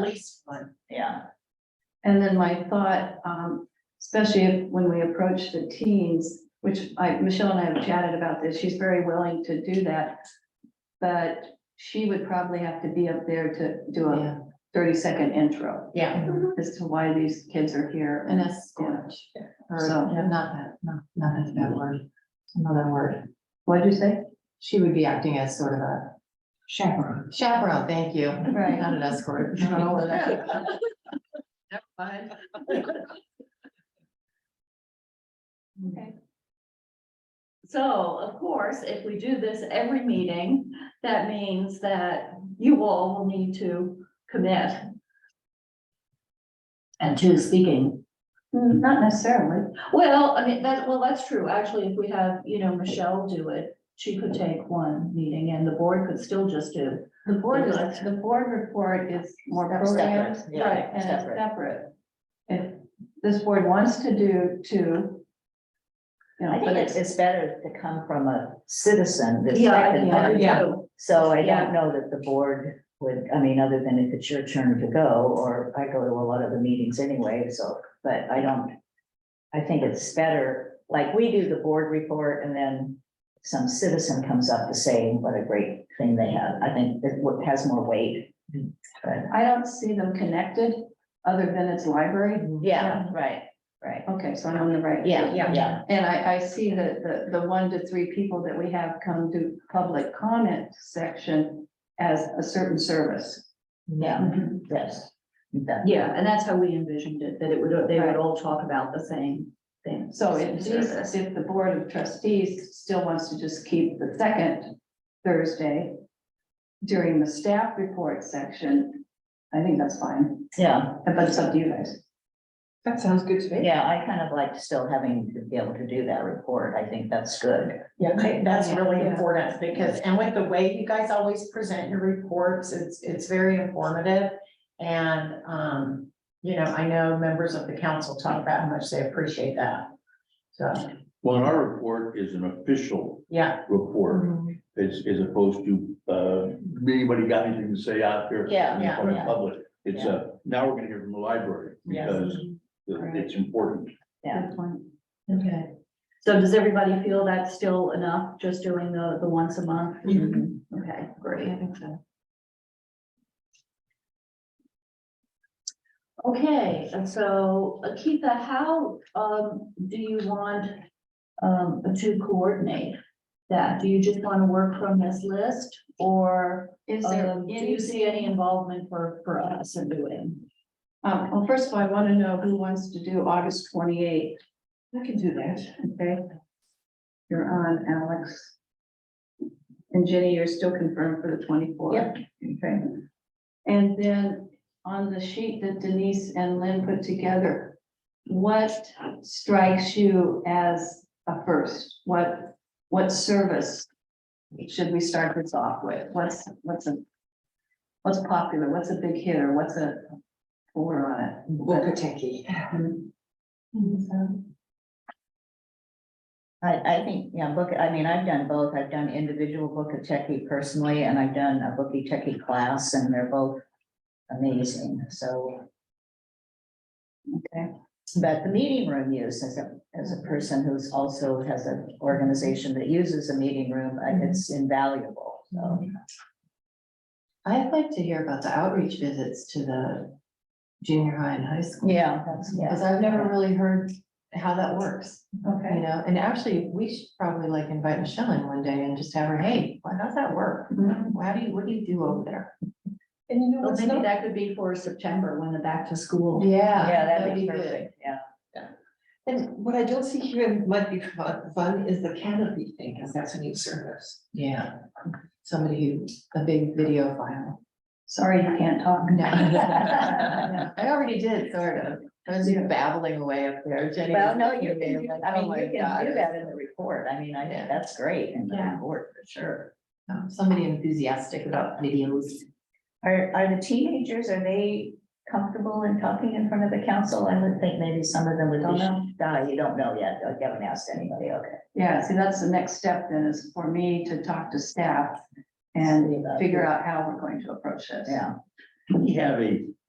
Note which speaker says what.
Speaker 1: least one.
Speaker 2: yeah,
Speaker 3: And then my thought, um, especially if- when we approach the teens, which I, Michelle and I have chatted about this, she's very willing to do that. But she would probably have to be up there to do a thirty second intro
Speaker 1: Yeah,
Speaker 3: as to why these kids are here.
Speaker 1: an escort. Or,
Speaker 3: So-
Speaker 1: yeah, not that, no, not that's a bad word. It's Another word.
Speaker 3: What'd you say?
Speaker 1: She would be acting as sort of a. Chaperone. Chaperone, thank you.
Speaker 3: Right.
Speaker 1: Not an escort. I don't know what that-
Speaker 2: So of course, if we do this every meeting, that means that you all will need to commit.
Speaker 4: And to speaking,
Speaker 3: Mm, Not necessarily.
Speaker 2: Hmm, Well, I mean, that, well, that's true. Actually, if we have, you know, Michelle do it, she could take one meeting and the board could still just do.
Speaker 3: The board, is- the board report is more
Speaker 4: separate,
Speaker 3: programmed.
Speaker 4: yeah,
Speaker 3: And it's
Speaker 4: separate.
Speaker 3: separate. If this board wants to do two.
Speaker 4: I
Speaker 3: You know,
Speaker 4: think
Speaker 3: but
Speaker 4: it's,
Speaker 3: it's,
Speaker 4: it's better to come from a citizen this
Speaker 2: Yeah, I
Speaker 4: second
Speaker 2: think that
Speaker 4: time.
Speaker 2: would
Speaker 1: Yeah.
Speaker 2: do.
Speaker 4: So I
Speaker 2: Yeah.
Speaker 4: don't know that the board would, I mean, other than if it's your turn to go, or I go to a lot of the meetings anyway, so, but I don't. I think it's better, like we do the board report and then some citizen comes up to say what a great thing they have. I think it wo- has more weight. But,
Speaker 3: I don't see them connected, other than it's library.
Speaker 4: yeah, right, right.
Speaker 3: Okay, so I'm on the right.
Speaker 4: Yeah,
Speaker 1: Yeah.
Speaker 4: yeah,
Speaker 3: And I, I see that the, the one to three people that we have come to public comment section as a certain service.
Speaker 4: yeah, yes. That-
Speaker 2: Mm-hmm. Yeah, and that's how we envisioned it, that it would, they would
Speaker 3: Right.
Speaker 2: all talk about the same thing.
Speaker 3: So
Speaker 2: same
Speaker 3: if these-
Speaker 2: service.
Speaker 3: if the board of trustees still wants to just keep the second Thursday during the staff report section, I think that's fine,
Speaker 4: Yeah.
Speaker 3: but it's up to you guys.
Speaker 1: That sounds good to me.
Speaker 4: Yeah, I kind of like still having to be able to do that report. I think that's good.
Speaker 5: Yeah, I- that's really
Speaker 2: Yeah.
Speaker 5: important because, and with the way you guys always present your reports, it's, it's very informative. And, um, you know, I know members of the council talk about how much they appreciate that. So,
Speaker 6: Well, and our report is an official
Speaker 5: yeah,
Speaker 6: report, as, as opposed to, uh, anybody got anything to say out there.
Speaker 4: Yeah,
Speaker 6: in
Speaker 5: yeah,
Speaker 6: front of
Speaker 4: yeah.
Speaker 6: Public, it's a, now we're gonna hear from the library,
Speaker 5: Yes.
Speaker 6: because the-
Speaker 3: Right.
Speaker 6: it's important.
Speaker 4: Yeah.
Speaker 3: Good point.
Speaker 5: okay.
Speaker 2: So does everybody feel that's still enough, just doing the, the once a month?
Speaker 5: Mhm.
Speaker 3: Mm-hmm.
Speaker 2: Okay, great. Okay, and so Akita, how, um, do you want, um, to coordinate that? Do you just want to work from this list? Or,
Speaker 3: Is there
Speaker 2: um, do
Speaker 3: any-
Speaker 2: you see any involvement for, for us in doing?
Speaker 3: Um, well, first of all, I want to know who wants to do August twenty-eighth. I can do that. Okay. You're on, Alex. And Jenny, you're still confirmed for the twenty-fourth.
Speaker 5: Yep.
Speaker 3: Okay. And then on the sheet that Denise and Lynn put together, what strikes you as a first? What, what service should we start this off with? What's, what's a, what's popular? What's a big hitter? What's a we're on it.
Speaker 5: Wokotiki.
Speaker 4: I, I think, yeah, book, I mean, I've done both. I've done individual book of techie personally, and I've done a bookie techie class, and they're both amazing, so.
Speaker 3: Okay.
Speaker 4: But the meeting room use as a, as a person who's also has an organization that uses a meeting room, I- it's invaluable, so.
Speaker 1: I'd like to hear about the outreach visits to the junior high and high school.
Speaker 4: Yeah, that's, yeah.
Speaker 1: Because I've never really heard how that works. You
Speaker 3: Okay.
Speaker 1: know, and actually, we should probably like invite Michelle in one day and just have her, hey, why- how's that work? How do you, what do you do over there?
Speaker 5: Mm-hmm. And you know
Speaker 2: Well, maybe that could be for September when the back to school.
Speaker 1: Yeah.
Speaker 4: Yeah,
Speaker 1: that'd
Speaker 4: that'd be
Speaker 1: good.
Speaker 4: perfect, yeah.
Speaker 7: And what I don't see here and might be fun, fun is the canopy thing, because that's a new service.
Speaker 1: Yeah, somebody who, a big video file.
Speaker 3: Sorry, you can't talk.
Speaker 1: No. I already did, sort of. I was just babbling away up there, Jenny.
Speaker 4: Well,
Speaker 1: was
Speaker 4: no,
Speaker 1: like,
Speaker 4: you can, I
Speaker 1: oh
Speaker 4: mean,
Speaker 1: my
Speaker 4: you
Speaker 1: God,
Speaker 4: can do
Speaker 1: it
Speaker 4: that
Speaker 1: was-
Speaker 4: in the report. I mean, I
Speaker 1: Yeah.
Speaker 4: think that's great in the
Speaker 2: Yeah.
Speaker 4: report, for sure.
Speaker 1: um, Somebody enthusiastic about videos.
Speaker 4: Are, are the teenagers, are they comfortable in talking in front of the council? I would think maybe some of them would
Speaker 3: Don't
Speaker 4: be.
Speaker 3: know.
Speaker 4: No, you don't know yet. You haven't asked anybody, okay.
Speaker 3: Yeah, see, that's the next step then is for me to talk to staff and figure out how we're going to approach this.
Speaker 4: Yeah,
Speaker 6: Do we have a